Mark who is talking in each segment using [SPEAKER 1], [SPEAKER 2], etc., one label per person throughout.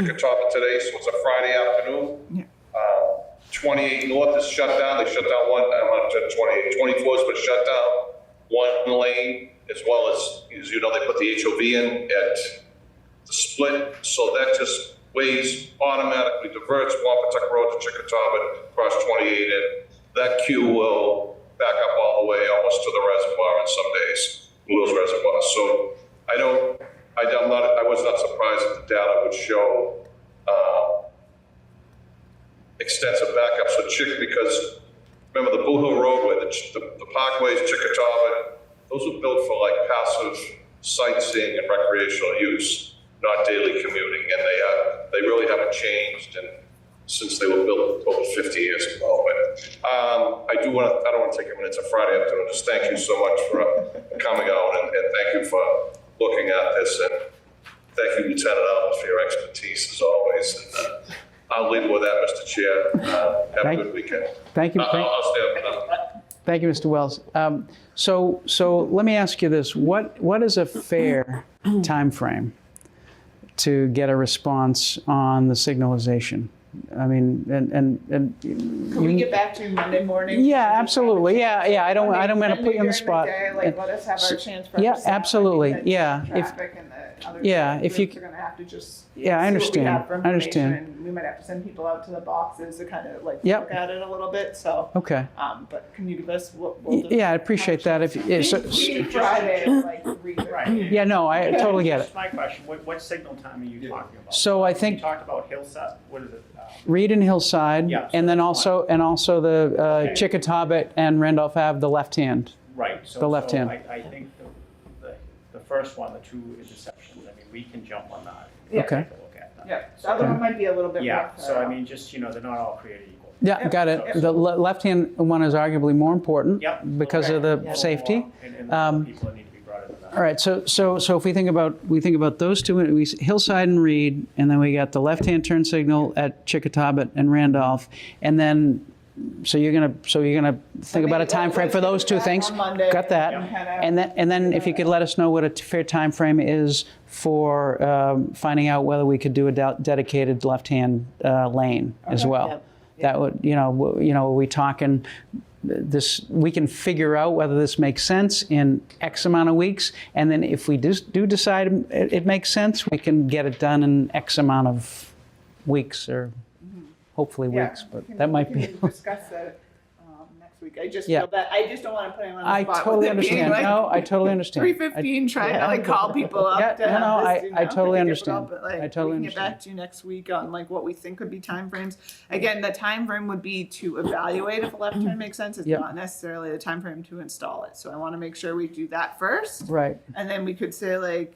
[SPEAKER 1] Chickatobit today, so it's a Friday afternoon. Uh, 28 North is shut down, they shut down one, I'm not sure, 28, 24 has been shut down, one lane, as well as, as you know, they put the HOV in at the split, so that just ways automatically diverts Wampatuck Road to Chickatobit across 28, and that queue will back up all the way almost to the reservoir in some days, Blue's Reservoir. So I don't, I don't, not, I was not surprised that the data would show, uh, extensive backups for Chick, because remember the Blue Hill roadway, the, ch- the the parkways, Chickatobit, those were built for like passive sightseeing and recreational use, not daily commuting, and they, uh, they really haven't changed and since they were built over fifty years ago, but, um, I do wanna, I don't wanna take a minute, it's a Friday afternoon, just thank you so much for uh, coming out and, and thank you for looking at this and Thank you, Lieutenant Alves, for your expertise as always. And uh, I'll leave with that, Mr. Chair. Uh, Have
[SPEAKER 2] Thank-
[SPEAKER 1] a good weekend.
[SPEAKER 2] Thank you.
[SPEAKER 1] I'll-
[SPEAKER 2] Thank-
[SPEAKER 1] I'll stay up. uh,
[SPEAKER 2] Thank you, Mr. Wells. Um, So, so let me ask you this, what, what is a fair timeframe to get a response on the signalization? I mean, and, and, and,
[SPEAKER 3] Can we get back to you Monday morning?
[SPEAKER 2] Mm. yeah, absolutely, yeah, yeah, I don't, I don't want to
[SPEAKER 3] Monday
[SPEAKER 2] put you on the
[SPEAKER 3] during
[SPEAKER 2] spot.
[SPEAKER 3] day, Like, let us have our chance for.
[SPEAKER 2] yeah,
[SPEAKER 3] ourselves. I think
[SPEAKER 2] absolutely.
[SPEAKER 3] that
[SPEAKER 2] Yeah, if-
[SPEAKER 3] Traffic and the other.
[SPEAKER 2] Yeah, if you
[SPEAKER 3] groups Are gonna have to just.
[SPEAKER 2] Yeah, I
[SPEAKER 3] see what we
[SPEAKER 2] understand.
[SPEAKER 3] have for
[SPEAKER 2] I understand.
[SPEAKER 3] information, and We might have to send people out to the boxes to kind of like
[SPEAKER 2] Yep.
[SPEAKER 3] look at it a little bit, so.
[SPEAKER 2] Okay,
[SPEAKER 3] Um, but can you give us what? we'll just-
[SPEAKER 2] yeah, I appreciate that if, yeah, so-
[SPEAKER 3] We Friday, like, read it.
[SPEAKER 4] Right.
[SPEAKER 2] yeah, no, I totally get it.
[SPEAKER 4] That's my question. What, what signal time are you talking about?
[SPEAKER 2] So I
[SPEAKER 4] You
[SPEAKER 2] think
[SPEAKER 4] talked about hillside, what is it? uh,
[SPEAKER 2] Reed and Hillside,
[SPEAKER 4] Yeah, so
[SPEAKER 2] and then
[SPEAKER 4] that's
[SPEAKER 2] also, and also the uh,
[SPEAKER 4] Okay.
[SPEAKER 2] Chickatobit and Randolph Ave, the left hand.
[SPEAKER 4] Right. so-
[SPEAKER 2] The left
[SPEAKER 4] so
[SPEAKER 2] hand.
[SPEAKER 4] I, I think the, the, the first one, the two interceptions, I mean, we can jump on that.
[SPEAKER 3] Yeah.
[SPEAKER 2] Okay.
[SPEAKER 4] Take a look at that.
[SPEAKER 3] Yeah, the other one might be a little bit.
[SPEAKER 4] Yeah,
[SPEAKER 3] rough,
[SPEAKER 4] so I mean, just, you know, they're not all created equal.
[SPEAKER 2] Yeah, got
[SPEAKER 4] Yep.
[SPEAKER 2] it. The le- left-hand one is arguably more important
[SPEAKER 4] Yep.
[SPEAKER 2] because of
[SPEAKER 4] Okay.
[SPEAKER 2] the
[SPEAKER 4] Yeah.
[SPEAKER 2] safety.
[SPEAKER 4] And, and
[SPEAKER 2] Um,
[SPEAKER 4] the people that need to be brought into that.
[SPEAKER 2] All right, so, so, so if we think about, we think about those two, we s- Hillside and Reed, and then we got the left-hand turn signal at Chickatobit and Randolph, and then, so you're gonna, so you're gonna think about a
[SPEAKER 3] maybe
[SPEAKER 2] time frame for those two
[SPEAKER 3] that's
[SPEAKER 2] things?
[SPEAKER 3] on Monday.
[SPEAKER 2] Got that?
[SPEAKER 3] Yeah.
[SPEAKER 2] And then, and then if you could let us know what a t- fair time frame is for um, finding out whether we could do a de- dedicated left-hand uh, lane as well.
[SPEAKER 5] Yep.
[SPEAKER 2] That would, you know, w- you know, are we talking this, we can figure out whether this makes sense in X amount of weeks. And then if we do, do decide it, it makes sense, we can get it done in X amount of weeks or hopefully
[SPEAKER 3] Yeah,
[SPEAKER 2] weeks, but
[SPEAKER 3] we can-
[SPEAKER 2] that
[SPEAKER 3] we
[SPEAKER 2] might
[SPEAKER 3] can
[SPEAKER 2] be.
[SPEAKER 3] Discuss that um, next week. I just
[SPEAKER 2] Yeah.
[SPEAKER 3] feel that, I just don't want to put anyone on
[SPEAKER 2] I
[SPEAKER 3] the spot. with
[SPEAKER 2] totally
[SPEAKER 3] it being,
[SPEAKER 2] understand.
[SPEAKER 3] like,
[SPEAKER 2] No, I totally understand.
[SPEAKER 3] Three
[SPEAKER 2] I-
[SPEAKER 3] fifteen, trying to like call people up.
[SPEAKER 2] Yeah,
[SPEAKER 3] to
[SPEAKER 2] no,
[SPEAKER 3] have
[SPEAKER 2] no,
[SPEAKER 3] this,
[SPEAKER 2] I-
[SPEAKER 3] you
[SPEAKER 2] I
[SPEAKER 3] know,
[SPEAKER 2] totally
[SPEAKER 3] it'd be difficult,
[SPEAKER 2] understand.
[SPEAKER 3] but, like,
[SPEAKER 2] I totally
[SPEAKER 3] We can get back
[SPEAKER 2] understand.
[SPEAKER 3] to you next week on like what we think would be timeframes. Again, the time frame would be to evaluate if a left turn makes sense. It's
[SPEAKER 2] Yep.
[SPEAKER 3] not necessarily the time frame to install it. So I want to make sure we do that first.
[SPEAKER 2] Right.
[SPEAKER 3] And then we could say like,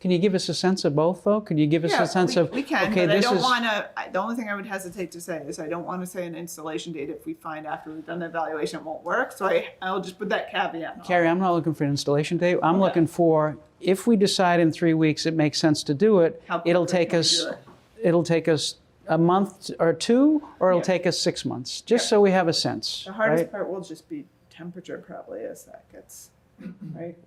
[SPEAKER 2] Can you give us a sense of both, though? Could you give us
[SPEAKER 3] yeah,
[SPEAKER 2] a sense
[SPEAKER 3] we-
[SPEAKER 2] of
[SPEAKER 3] We can,
[SPEAKER 2] okay,
[SPEAKER 3] but I
[SPEAKER 2] this
[SPEAKER 3] don't
[SPEAKER 2] is
[SPEAKER 3] want to, the only thing I would hesitate to say is I don't want to say an installation date if we find after we've done the evaluation it won't work. So I, I'll just put that caveat. on.
[SPEAKER 2] Carrie? I'm not looking for an installation date. I'm looking for if we decide in three weeks it makes sense to do it.
[SPEAKER 3] How
[SPEAKER 2] It'll
[SPEAKER 3] quickly
[SPEAKER 2] take
[SPEAKER 3] can we
[SPEAKER 2] us.
[SPEAKER 3] do it?
[SPEAKER 2] It'll take us a month or two, or it'll
[SPEAKER 3] Yeah.
[SPEAKER 2] take us six months, just so we have a sense.
[SPEAKER 3] The hardest
[SPEAKER 2] right?
[SPEAKER 3] part will just be temperature probably as that gets, right?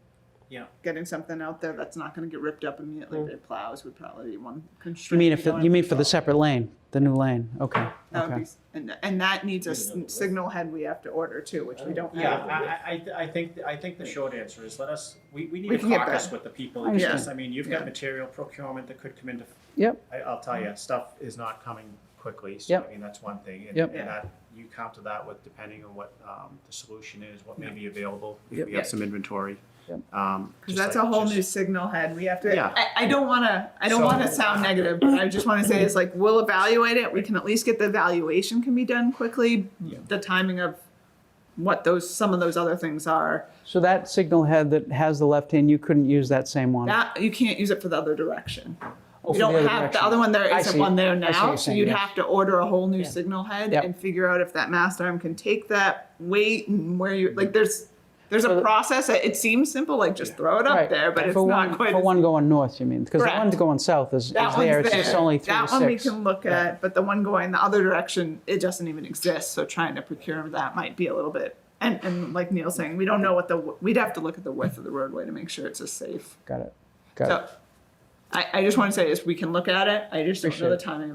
[SPEAKER 4] Yeah.
[SPEAKER 3] Getting something out there that's not gonna get ripped up immediately by plows would probably be one
[SPEAKER 2] Mm. You
[SPEAKER 3] constraint.
[SPEAKER 2] mean
[SPEAKER 3] we
[SPEAKER 2] if
[SPEAKER 3] don't
[SPEAKER 2] you
[SPEAKER 3] have
[SPEAKER 2] mean for the
[SPEAKER 3] control.
[SPEAKER 2] separate lane, the new lane? Okay.
[SPEAKER 3] That would
[SPEAKER 2] okay.
[SPEAKER 3] be, and, and that needs a s- signal head we have to order too, which we don't
[SPEAKER 4] Yeah,
[SPEAKER 3] have.
[SPEAKER 4] I, I, I- I think, I think the short answer is let us, we, we need
[SPEAKER 3] We
[SPEAKER 4] to
[SPEAKER 3] can get
[SPEAKER 4] caucus
[SPEAKER 3] back.
[SPEAKER 4] with the people.
[SPEAKER 2] I understand.
[SPEAKER 4] Yes, I mean, you've got material procurement that could come into
[SPEAKER 2] Yep.
[SPEAKER 4] I, I'll tell you, stuff is not coming quickly, so
[SPEAKER 2] Mm-hmm. Yep.
[SPEAKER 4] I mean, that's one thing. and-
[SPEAKER 2] Yep.
[SPEAKER 4] And that, you counter that with depending on what, um, the solution is, what may be available,
[SPEAKER 2] Yep.
[SPEAKER 4] if we have some inventory.
[SPEAKER 2] Yep.
[SPEAKER 4] Um,
[SPEAKER 3] Cause
[SPEAKER 4] just
[SPEAKER 3] that's a
[SPEAKER 4] like-
[SPEAKER 3] whole
[SPEAKER 4] just-
[SPEAKER 3] new signal head. We have to,
[SPEAKER 4] Yeah.
[SPEAKER 3] I, I don't wanna, I don't
[SPEAKER 4] So-
[SPEAKER 3] wanna sound negative, but I just wanna say is like, we'll evaluate it. We can at least get the evaluation can be done quickly.
[SPEAKER 4] Yeah.
[SPEAKER 3] The timing of what those, some of those other things are.
[SPEAKER 2] So that signal head that has the left hand, you couldn't use that same one.
[SPEAKER 3] That, you can't use it for the other direction.
[SPEAKER 2] Hmm. Oh,
[SPEAKER 3] You
[SPEAKER 2] for
[SPEAKER 3] don't
[SPEAKER 2] other
[SPEAKER 3] have
[SPEAKER 2] direction.
[SPEAKER 3] the other one. There
[SPEAKER 2] I
[SPEAKER 3] isn't
[SPEAKER 2] see.
[SPEAKER 3] one
[SPEAKER 2] I
[SPEAKER 3] there
[SPEAKER 2] see what
[SPEAKER 3] now,
[SPEAKER 2] you're
[SPEAKER 3] so
[SPEAKER 2] saying,
[SPEAKER 3] you'd
[SPEAKER 2] yes.
[SPEAKER 3] have to order a whole new
[SPEAKER 5] Yeah.
[SPEAKER 3] signal head
[SPEAKER 2] Yep.
[SPEAKER 3] and figure out if that mast arm can take that weight and where you like. There's there's
[SPEAKER 2] For
[SPEAKER 3] a
[SPEAKER 2] the-
[SPEAKER 3] process. It it seems simple, like just throw it up
[SPEAKER 2] Right.
[SPEAKER 3] there, but it's
[SPEAKER 2] for
[SPEAKER 3] not
[SPEAKER 2] one,
[SPEAKER 3] quite.
[SPEAKER 2] for
[SPEAKER 3] as-
[SPEAKER 2] one going north. You mean because the
[SPEAKER 3] Correct.
[SPEAKER 2] one going south is, is
[SPEAKER 3] that
[SPEAKER 2] there.
[SPEAKER 3] one's
[SPEAKER 2] It's
[SPEAKER 3] there.
[SPEAKER 2] just only three
[SPEAKER 3] that
[SPEAKER 2] to
[SPEAKER 3] one we
[SPEAKER 2] six.
[SPEAKER 3] can look at, but the one going the other direction, it doesn't even exist. So trying to procure that might be a little bit. And, and like Neil's saying, we don't know what the we'd have to look at the width of the roadway to make sure it's a safe.
[SPEAKER 2] Got it. Got
[SPEAKER 3] So
[SPEAKER 2] I, I just want to say is we can look at it. I just don't know
[SPEAKER 3] Appreciate
[SPEAKER 2] the
[SPEAKER 3] it.
[SPEAKER 2] timing